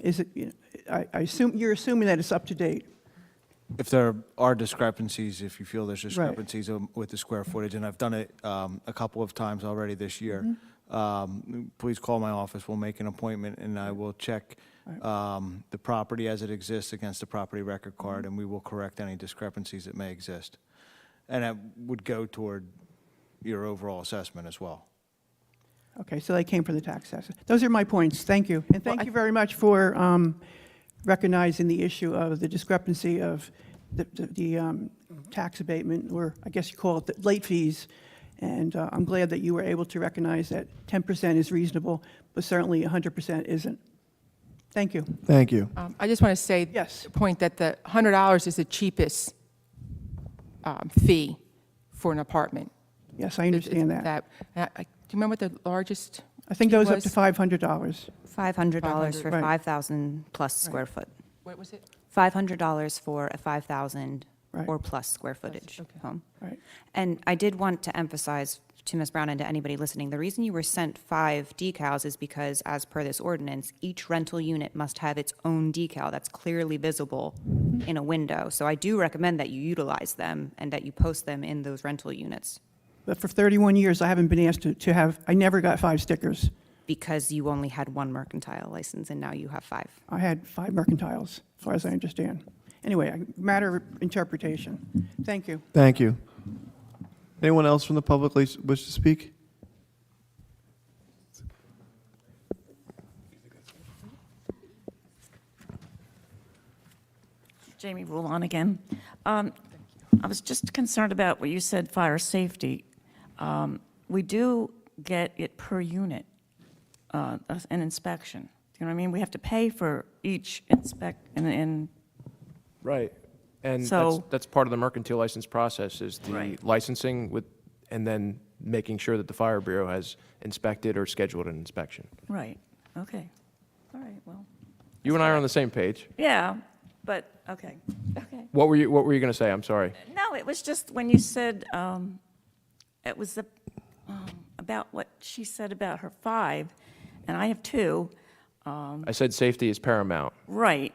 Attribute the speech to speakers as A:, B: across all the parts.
A: Is it, you know, I I assume, you're assuming that it's up to date?
B: If there are discrepancies, if you feel there's
A: Right.
B: discrepancies um, with the square footage, and I've done it um, a couple of times already this year, um, please call my office, we'll make an appointment, and I will check um, the property as it exists against the property record card, and we will correct any discrepancies that may exist. And that would go toward your overall assessment as well.
A: Okay, so they came from the tax assessor. Those are my points, thank you. And thank
C: I-
A: you very much for um, recognizing the issue of the discrepancy of the- the the, um, tax abatement, or I guess you call it the late fees. And uh, I'm glad that you were able to recognize that 10% is reasonable, but certainly 100% isn't. Thank you.
D: Thank you.
C: Um, I just want to say.
A: Yes.
C: the Point that the $100 is the cheapest um, fee for an apartment.
A: Yes, I
C: It- it-
A: understand that.
C: That, I- do you remember what the largest?
A: I think those up
C: was-
A: to $500.
E: $500 for
A: Right.
E: 5,000 plus square foot.
C: What was it?
E: $500 for a 5,000
A: Right.
E: or plus square footage
C: okay.
E: home.
A: Right.
E: And I did want to emphasize to Ms. Brown and to anybody listening, the reason you were sent five decals is because, as per this ordinance, each rental unit must have its own decal that's clearly visible in a window. So I do recommend that you utilize them and that you post them in those rental units
A: But for 31 years, I haven't been asked to to have, I never got five stickers.
E: because you only had one mercantile license and now you have five.
A: I had five mercantiles, as far as I understand. Anyway, I- matter of interpretation. Thank you.
D: Thank you. Anyone else from the public leas- wish to speak?
F: Jamie Rulon again. Um, I was just concerned about what you said, fire safety. Um, We do get it per unit, uh, as an inspection. You know what I mean? We have to pay for each inspect, and, and,
G: Right. And that's,
F: So-
G: that's part of the mercantile license process is the
F: Right.
G: licensing with, and then making sure that the fire bureau has inspected or scheduled an inspection.
F: right, okay. All right, well,
G: You and I are on the same page.
F: yeah, but, okay, okay.
G: What were you, what were you going to say? I'm sorry.
F: No, it was just when you said, um, it was the, um, about what she said about her five, and I have two.
G: I said safety is paramount.
F: Right.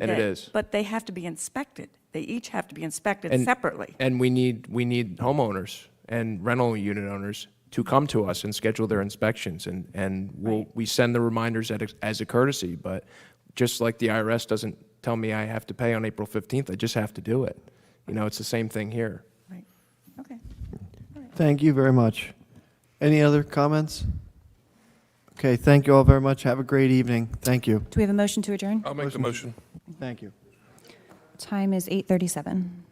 G: And it
F: that-
G: is.
F: But they have to be inspected. They each have to be inspected
G: And-
F: separately.
G: And we need, we need homeowners and rental unit owners to come to us and schedule their inspections. And, and we'll, we send the reminders at- as a courtesy, but just like the IRS doesn't tell me I have to pay on April 15th, I just have to do it. You know, it's the same thing here.
F: Right. Okay.
D: Thank you very much. Any other comments? Okay, thank you all very much. Have a great evening. Thank you.
G: Uh,
E: Do we have a motion to adjourn?
H: I'll make the motion.
D: Thank you.
E: Time is 8:37.